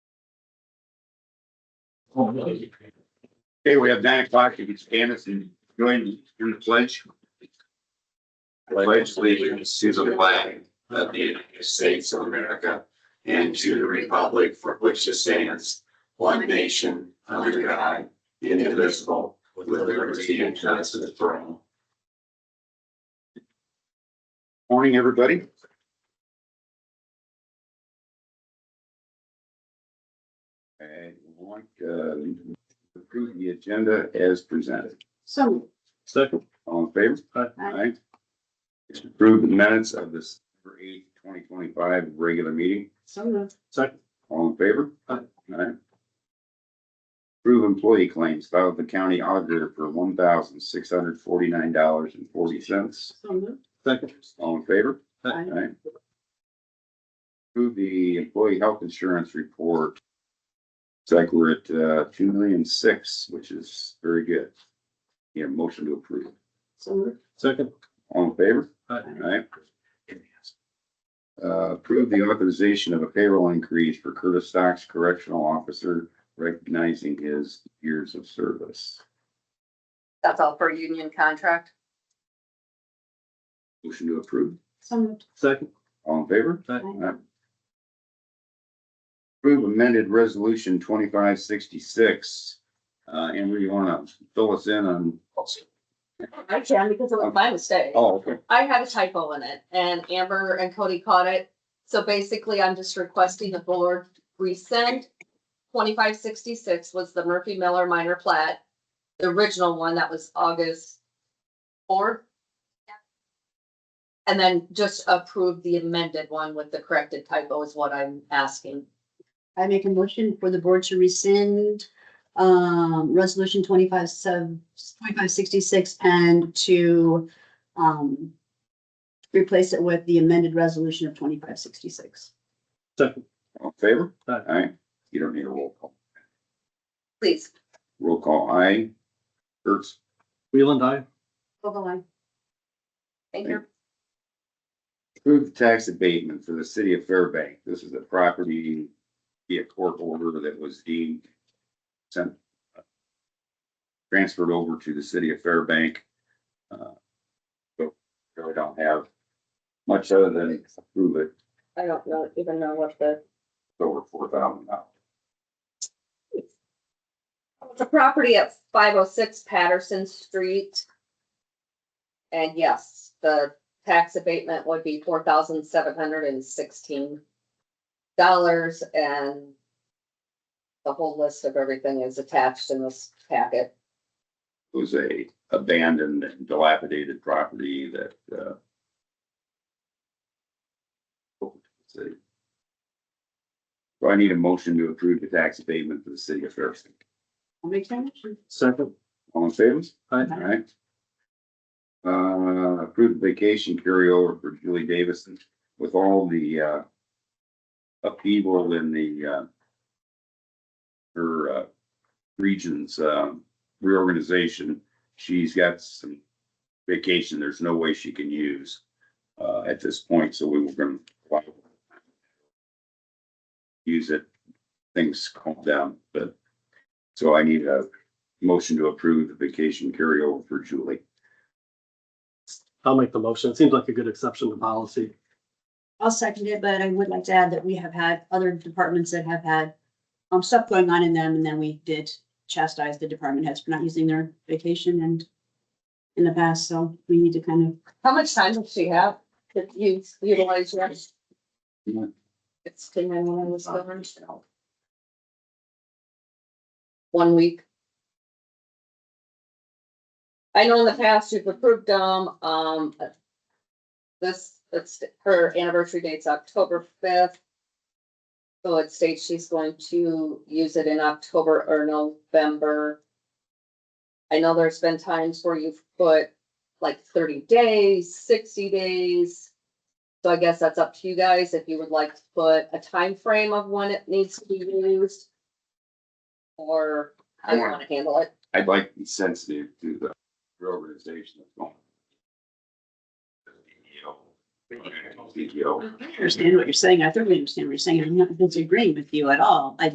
Okay, we have nine o'clock. If it's Candace and join in the pledge. I pledge allegiance to the flag of the United States of America and to the republic for which it stands, one nation, under God, indivisible, with liberty and justice for all. Morning, everybody. I want to uh, approve the agenda as presented. So, Second. All in favor? Aye. Aye. It's approved the minutes of this September eighth, twenty twenty-five regular meeting. so moved. Second. All in favor? Aye. Aye. Approve employee claims filed with the county auditor for one thousand six hundred forty-nine dollars and forty cents. So moved. Second. All in favor? Aye. Aye. Approve the employee health insurance report. It's like we're at, uh, two million six, which is very good. Yeah, motion to approve. So moved. Second. All in favor? Aye. Aye. Uh, approve the authorization of a payroll increase for Curtis Stocks Correctional Officer recognizing his years of service. That's all for union contract. Motion to approve. So moved. Second. All in favor? Aye. Aye. Approve amended resolution twenty-five sixty-six. Uh, Amber, you wanna fill us in on? I can because it was my mistake. Oh, okay. I had a typo in it and Amber and Cody caught it. So basically, I'm just requesting the board resend. Twenty-five sixty-six was the Murphy Miller minor plat, the original one that was August fourth. And then just approve the amended one with the corrected typo is what I'm asking. I make a motion for the board to rescind um resolution twenty-five sub, twenty-five sixty-six and to um replace it with the amended resolution of twenty-five sixty-six. Second. All in favor? Aye. Aye. You don't need a roll call. Please. Roll call, aye. Kurtz, Wheel I. Vogel, aye. Thank you. Approve the tax abatement for the city of Fairbank. This is a property via court order that was deemed sent uh, transferred over to the city of Fairbank. Uh, So really don't have much other than approve it I don't know, even know what the over four thousand dollars. It's a property at five oh six Patterson Street. And yes, the tax abatement would be four thousand seven hundred and sixteen dollars and the whole list of everything is attached in this packet. It was a abandoned and dilapidated property that, uh, city. So I need a motion to approve the tax abatement for the city of Fairbank. I'll make that motion. Second. All in favor? Aye. Alright. Uh, approved vacation carryover for Julie Davison with all the, uh, upheaval in the, uh, her, uh, regions, um, reorganization. She's got some vacation there's no way she can use, uh, at this point, so we were gonna use it, things calm down, but, so I need a motion to approve the vacation carryover for Julie. I'll make the motion. It Seems like a good exception to policy. I'll second it, but I would like to add that we have had other departments that have had um stuff going on in them, and then we did chastise the department heads for not using their vacation and in the past, so we need to kind of How much time does she have to use, utilize yours? Yeah. It's ten minutes, whatever. One week. I know in the past you've approved them, um. This, it's her anniversary date's October fifth. So it states she's going to use it in October or November. I know there's been times where you've put like thirty days, sixty days. So I guess that's up to you guys if you would like to put a time frame of when it needs to be used. Or how you wanna handle it. I'd like to be sensitive to the reorganization that's going. on. CEO. I understand what you're saying. I thoroughly understand what you're saying. I'm not disagreeing with you at all. I